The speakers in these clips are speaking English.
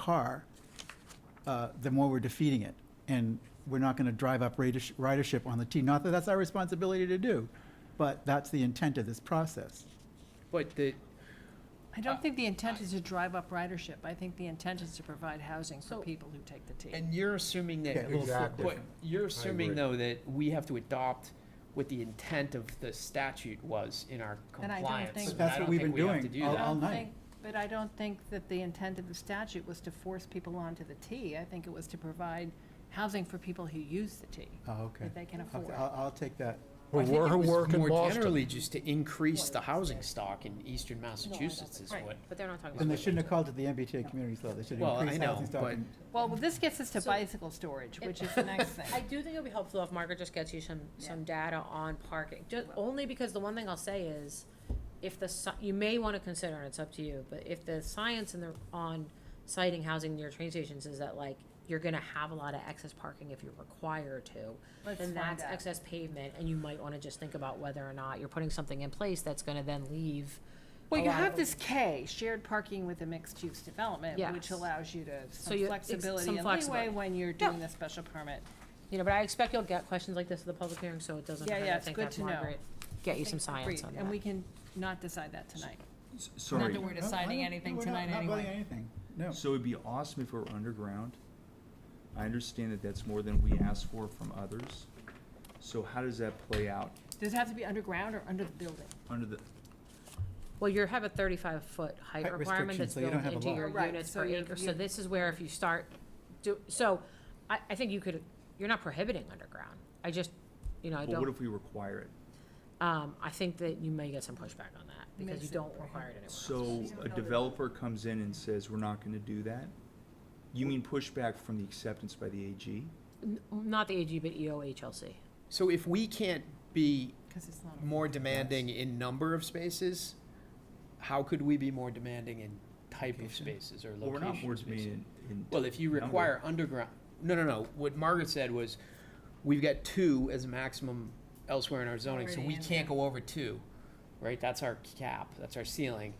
car, uh, the more we're defeating it. And we're not going to drive up ridersh- ridership on the T. Not that that's our responsibility to do, but that's the intent of this process. But the, I Uh, don't think the intent is to drive up ridership. I think the intent is to provide housing for So- people who take the T. and you're assuming that, Yeah, well, f- exactly. but you're assuming agree. though that we have to adopt what the intent of the statute was in our And I don't think- compliance. But that's what I don't we've think been we have doing to do all- that. I don't night. think- But I don't think that the intent of the statute was to force people onto the T. I think it was to provide housing for people who use the T, Oh, okay. that they can I'll- afford. I'll, I'll take that. Her I think wor- it her was work in More Boston. generally, just to increase the housing stock in eastern No, I don't Massachusetts think- is right, what. But they're not talking about. Then they it. shouldn't have called it the MBTA communities law. They should Well, have I increased housing know, stock. but- and- Well, this gets us to So- bicycle storage, which is the next thing. I do think it'll be helpful if Margaret just gets you some, some data on parking, just, only because the one thing I'll say is, if the, sci- you may wanna consider, and it's up to you, but if the science in the, on citing housing near train stations is that like, you're gonna have a lot of excess parking if you're required to, Let's then find that's out. excess pavement, and you might wanna just think about whether or not you're putting something in place that's gonna then leave. Well, a you lot have of- this K, shared parking with a mixed-use development, which Yes. allows you to have So some you- ex- some flexibility and leeway flexibility. when you're Yeah. doing the special permit. You know, but I expect you'll get questions like this at the public hearing, so it doesn't Yeah, hurt, yeah, I it's think good have to know. Margaret get you some Agreed. science on that. And we can not decide that tonight. S- Sorry, We're No, I deciding don't- anything we're not- tonight Not voting anyway. anything, no. so it'd be awesome if we're underground. I understand that that's more than we asked for from others. So how does that play out Does it have to be underground or under the building? under the, Well, you have a thirty-five foot height Height requirement restriction, that's so you built don't have a into lot. your Right, units so per you're- acre, so you're- this is where if you start, do, so, I, I think you could, you're not prohibiting underground, I just, you know, I but what don't, if we require it? um, I think that you may get some pushback on that, because you Makes it don't prohibited. require it anywhere else. So a developer comes in and says, we're not gonna do that? You mean pushback from the acceptance by the AG? N- Not the AG, but E EOHLC, So if we can't be Because it's not. more demanding in number of spaces, how could we be more demanding in type of Location. spaces or Well, we're not location words spaces? being in. Well, if you number. require underground, no, no, no, what Margaret said was, we've got two as a maximum elsewhere in our zoning, so Already we in can't go over two, right? That's our cap, that's our ceiling.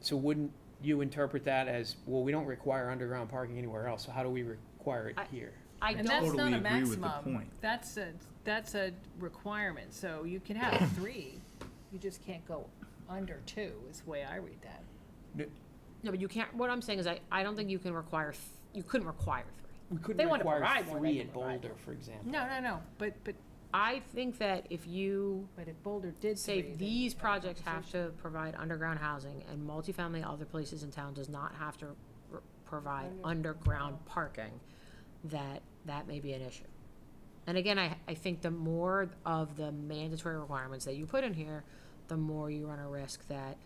So wouldn't you interpret that as, well, we don't require underground parking anywhere else, so how do we require it I- here? I And don't. that's totally not a agree with the maximum. point. That's a, that's a requirement, so you can have three, you just can't go under two, is the way I read that. No, but you can't, what I'm saying is I, I don't think you can require, th- you couldn't require We three. couldn't They wanna require provide one, they three can at provide Boulder, for example. No, no, no, but, but, I think that if you but if Boulder did three. say then these we'd have a projects have conversation. to provide underground housing and multifamily other places in town does not have to r- provide underground parking, that, that may be an issue. And again, I, I think the more of the mandatory requirements that you put in here, the more you run a risk that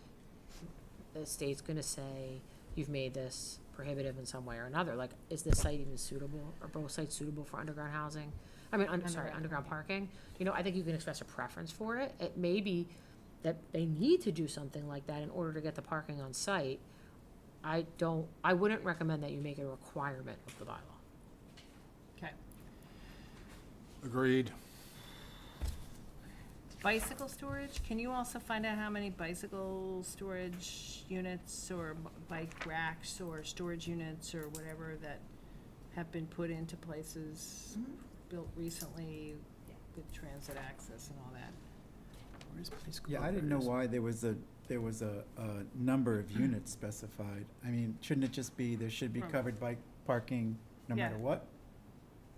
the state's gonna say, you've made this prohibitive in some way or another, like, is this site even suitable, are both sites suitable for underground housing? I mean, un- sorry, Underground underground parking, you know, I think you can express a preference for it, it may be that they need to do something like that in order to get the parking on site. I don't, I wouldn't recommend that you make it a requirement of the bylaw. Okay, Agreed. bicycle storage, can you also find out how many bicycle storage units or b- bike racks or storage units or whatever that have been put into places built recently with transit access and all that? Where's Place Yeah, I didn't know Clover? why there was a, there was a, a number of units specified. I mean, shouldn't it just be, there should be Hmm. covered bike parking no Yeah. matter what?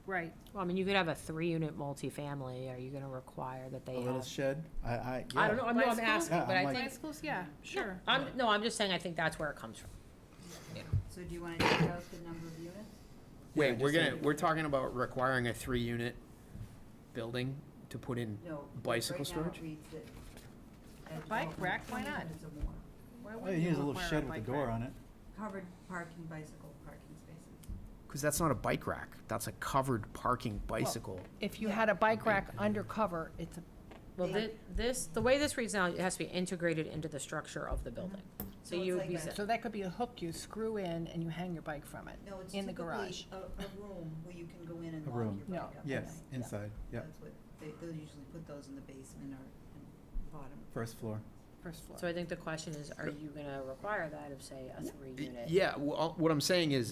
Right, Well, I mean, you could have a three-unit multifamily, are you gonna require that they A little have? shed? I, I, yeah. I don't know, I'm, no, I'm Bicycle? asking, Oh, Yeah, but I'm I like- think, bicycles, yeah, sure. I'm, no, I'm just saying, I think that's where it comes from. So do you want to take out the number of units? Wait, Yeah, we're just gonna, like- we're talking about requiring a three-unit building to put in No. Bicycle Right now, storage? it reads that. that Bike development rack, why not? is a more Why All you wouldn't need you is a little require shed with a bike door rack? on it. Covered parking, bicycle parking spaces. Because that's not a bike rack. That's a covered parking bicycle. If you had a bike rack undercover, it's a, Well, Yeah. thi- this, the way this reads now, it has to be integrated into the structure of the building. So So it's you would like be, a- sa- so that could be a hook you screw in and you hang your bike from it, No, it's in the typically garage. a, a room where you can go in and A lock your room. bike No. up. at Yes, night. inside, yeah, That's what, they, they'll usually put those in the basement or in bottom. first floor. first floor. So I think the question is, are you gonna require that of, say, a three unit? Yeah, well, what I'm saying is,